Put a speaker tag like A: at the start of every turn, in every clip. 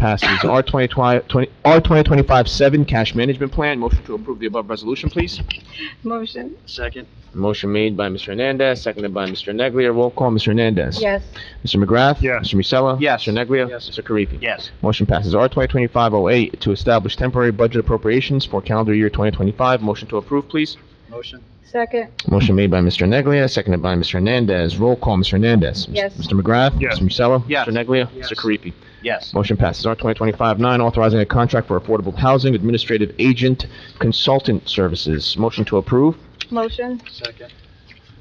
A: passes. R twenty twenty, R twenty twenty-five seven, cash management plan. Motion to approve the above resolution, please.
B: Motion,
C: Second.
A: Motion made by Mr. Hernandez, seconded by Mr. Neglia. Roll call, Mr. Hernandez.
B: yes.
A: Mr. McGrath.
C: Yes.
A: Mr. Musella.
C: Yes.
A: Mr. Neglia.
C: Yes.
A: Mr. Karifi.
C: Yes.
A: Motion passes. R twenty twenty-five oh eight to establish temporary budget appropriations for calendar year twenty twenty-five. Motion to approve, please.
C: Motion.
B: Second,
A: Motion made by Mr. Neglia, seconded by Mr. Hernandez. Roll call, Mr. Hernandez.
B: Yes.
A: Mr. McGrath.
C: Yes.
A: Mr. Musella.
C: Yes.
A: Mr. Neglia.
C: Yes.
A: Mr. Karifi.
C: Yes.
A: Motion passes. R 2025-9, authorizing a contract for affordable housing administrative agent consultant services. Motion to approve.
B: motion,
C: Second.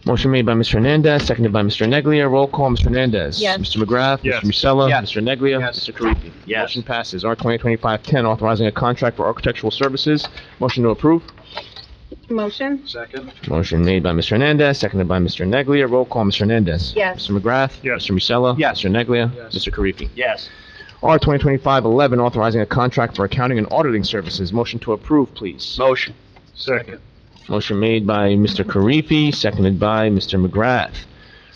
A: Motion made by Mr. Hernandez, seconded by Mr. Neglia. Roll call, Mr. Hernandez.
B: Yes.
A: Mr. McGrath.
C: Yes.
A: Mr. Musella.
C: Yes.
A: Mr. Neglia.
C: Yes.
A: Mr. Karifi.
C: Yes.
A: Motion passes. R 2025-10, authorizing a contract for architectural services. Motion to approve.
B: motion,
C: Second.
A: Motion made by Mr. Hernandez, seconded by Mr. Neglia. Roll call, Mr. Hernandez.
B: Yes.
A: Mr. McGrath.
C: Yes.
A: Mr. Musella.
C: Yes.
A: Mr. Neglia.
C: Yes.
A: Mr. Karifi.
C: Yes.
A: R 2025-11, authorizing a contract for accounting and auditing services. Motion to approve, please.
C: Motion. Second.
A: Motion made by Mr. Karifi, seconded by Mr. McGrath.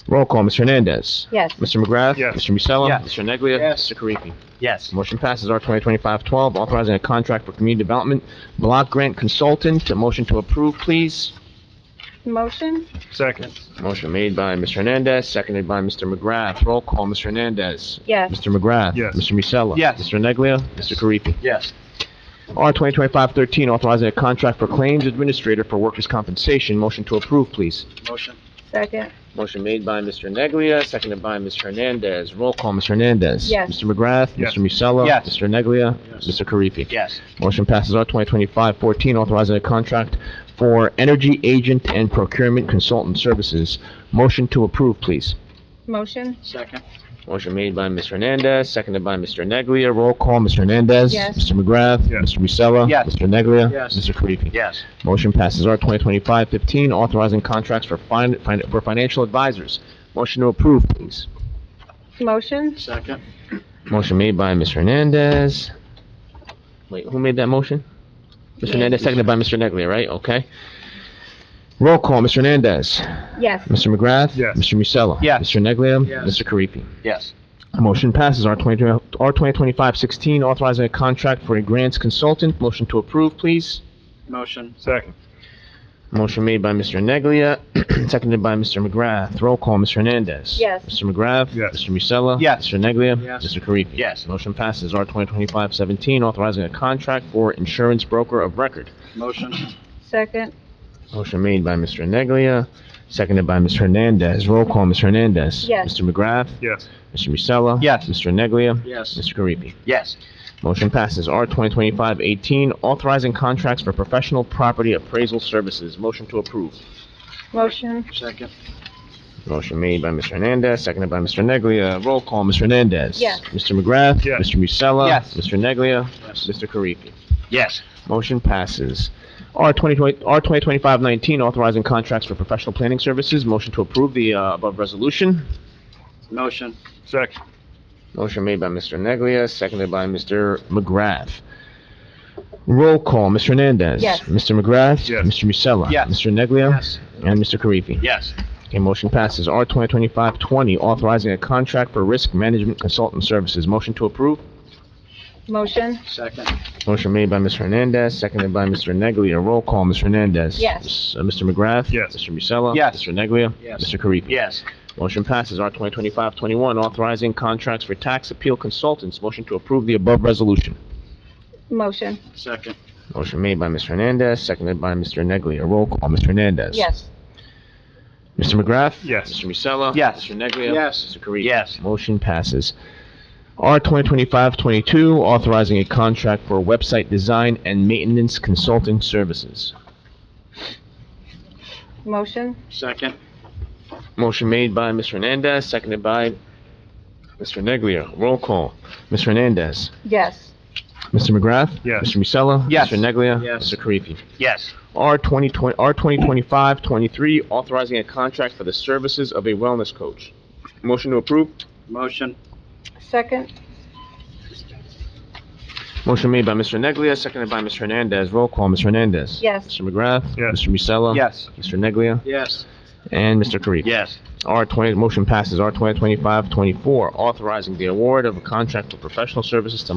A: Roll call, Mr. Hernandez.
B: yes.
A: Mr. McGrath.
C: Yes.
A: Mr. Musella.
C: Yes.
A: Mr. Neglia.
C: Yes.
A: Mr. Karifi.
C: Yes.
A: Motion passes R 2025-12, authorizing a contract for community development block grant consultant. A Motion to approve, please.
B: Motion,
C: Second.
A: Motion made by Mr. Hernandez, seconded by Mr. McGrath. Roll call, Mr. Hernandez.
B: yes.
A: Mr. McGrath.
C: Yes.
A: Mr. Musella.
C: Yes.
A: Mr. Neglia. Mr. Karifi.
C: Yes.
A: R 2025-13, authorizing a contract for claims administrator for workers' compensation. Motion to approve, please.
C: Motion.
B: Second,
A: Motion made by Mr. Neglia, seconded by Ms. Hernandez. Roll call, Ms. Hernandez.
B: Yes.
A: Mr. McGrath.
C: Yes.
A: Mr. Musella.
C: Yes.
A: Mr. Neglia.
C: Yes.
A: Mr. Karifi.
C: Yes.
A: Motion passes R 2025-14, authorizing a contract for energy agent and procurement consultant services. Motion to approve, please.
B: motion,
C: Second.
A: Motion made by Ms. Hernandez, seconded by Mr. Neglia. Roll call, Mr. Hernandez.
B: Yes.
A: Mr. McGrath.
C: Yes.
A: Mr. Musella.
C: Yes.
A: Mr. Neglia.
C: Yes.
A: Mr. Karifi.
C: Yes.
A: Motion passes R 2025-15, authorizing contracts for fin, fin- for financial advisors. Motion to approve, please.
B: motion,
C: Second.
A: Motion made by Mr. Hernandez. Wait, who made that motion? Mr. Hernandez, seconded by Mr. Neglia, right? Okay. Roll call, Mr. Hernandez.
B: yes.
A: Mr. McGrath.
C: Yes.
A: Mr. Musella.
C: Yes.
A: Mr. Neglia.
C: Yes.
A: Mr. Karifi.
C: Yes.
A: Motion passes R 20, R 2025-16, authorizing a contract for a grants consultant. Motion to approve, please.
C: Motion. Second.
A: Motion made by Mr. Neglia, seconded by Mr. McGrath. Roll call, Mr. Hernandez.
B: Yes.
A: Mr. McGrath.
C: Yes.
A: Mr. Musella.
C: Yes.
A: Mr. Neglia.
C: Yes.
A: Mr. Karifi.
C: Yes.
A: Motion passes R 2025-17, authorizing a contract for insurance broker of record.
C: Motion.
B: Second,
A: Motion made by Mr. Neglia, seconded by Mr. Hernandez. Roll call, Mr. Hernandez.
B: Yes.
A: Mr. McGrath.
C: Yes.
A: Mr. Musella.
C: Yes.
A: Mr. Neglia.
C: Yes.
A: Mr. Karifi.
C: Yes.
A: Motion passes R 2025-18, authorizing contracts for professional property appraisal services. Motion to approve.
B: motion,
C: Second.
A: Motion made by Mr. Hernandez, seconded by Mr. Neglia. Roll call, Mr. Hernandez.
B: Yes.
A: Mr. McGrath.
C: Yes.
A: Mr. Musella.
C: Yes.
A: Mr. Neglia.
C: Yes.
A: Mr. Karifi.
C: Yes.
A: Motion passes. R 2020 R 2025-19, authorizing contracts for professional planning services. Motion to approve the uh, above resolution.
C: Motion. Second.
A: Motion made by Mr. Neglia, seconded by Mr. McGrath. Roll call, Mr. Hernandez.
B: Yes.
A: Mr. McGrath.
C: Yes.
A: Mr. Musella.
C: Yes.
A: Mr. Neglia.
C: Yes.
A: And Mr. Karifi.
C: Yes.
A: Okay, motion passes. R 2025-20, authorizing a contract for risk management consultant services. Motion to approve.
B: motion,
C: Second.
A: Motion made by Mr. Hernandez, seconded by Mr. Neglia. Roll call, Mr. Hernandez.
B: Yes.
A: Uh, Mr. McGrath.
C: Yes.
A: Mr. Musella.
C: Yes.
A: Mr. Neglia.
C: Yes.
A: Mr. Karifi.
C: Yes.
A: Motion passes. R 2025-21, authorizing contracts for tax appeal consultants. Motion to approve the above resolution.
B: motion,
C: Second.
A: Motion made by Mr. Hernandez, seconded by Mr. Neglia. Roll call, Mr. Hernandez.
B: yes.
A: Mr. McGrath.
C: Yes.
A: Mr. Musella.
C: Yes.
A: Mr. Neglia.
C: Yes.
A: Mr. Karifi.
C: Yes.
A: Motion passes. R 2025-22, authorizing a contract for website design and maintenance consulting services.
B: Motion,
C: Second.
A: Motion made by Mr. Hernandez, seconded by Mr. Neglia. Roll call. Mr. Hernandez.
B: yes.
A: Mr. McGrath.
C: Yes.
A: Mr. Musella.
C: Yes.
A: Mr. Neglia.
C: Yes.
A: Mr. Karifi.
C: Yes.
A: R 2020, R 2025-23, authorizing a contract for the services of a wellness coach. Motion to approve.
C: Motion.
B: Second,
A: Motion made by Mr. Neglia, seconded by Mr. Hernandez. Roll call, Mr. Hernandez.
B: yes.
A: Mr. McGrath.
C: Yes.
A: Mr. Musella.
C: Yes.
A: Mr. Neglia.
C: Yes.
A: And Mr. Karifi.
C: Yes.
A: R twenty, motion passes. R twenty twenty-five twenty-four, authorizing the award of a contract for professional services to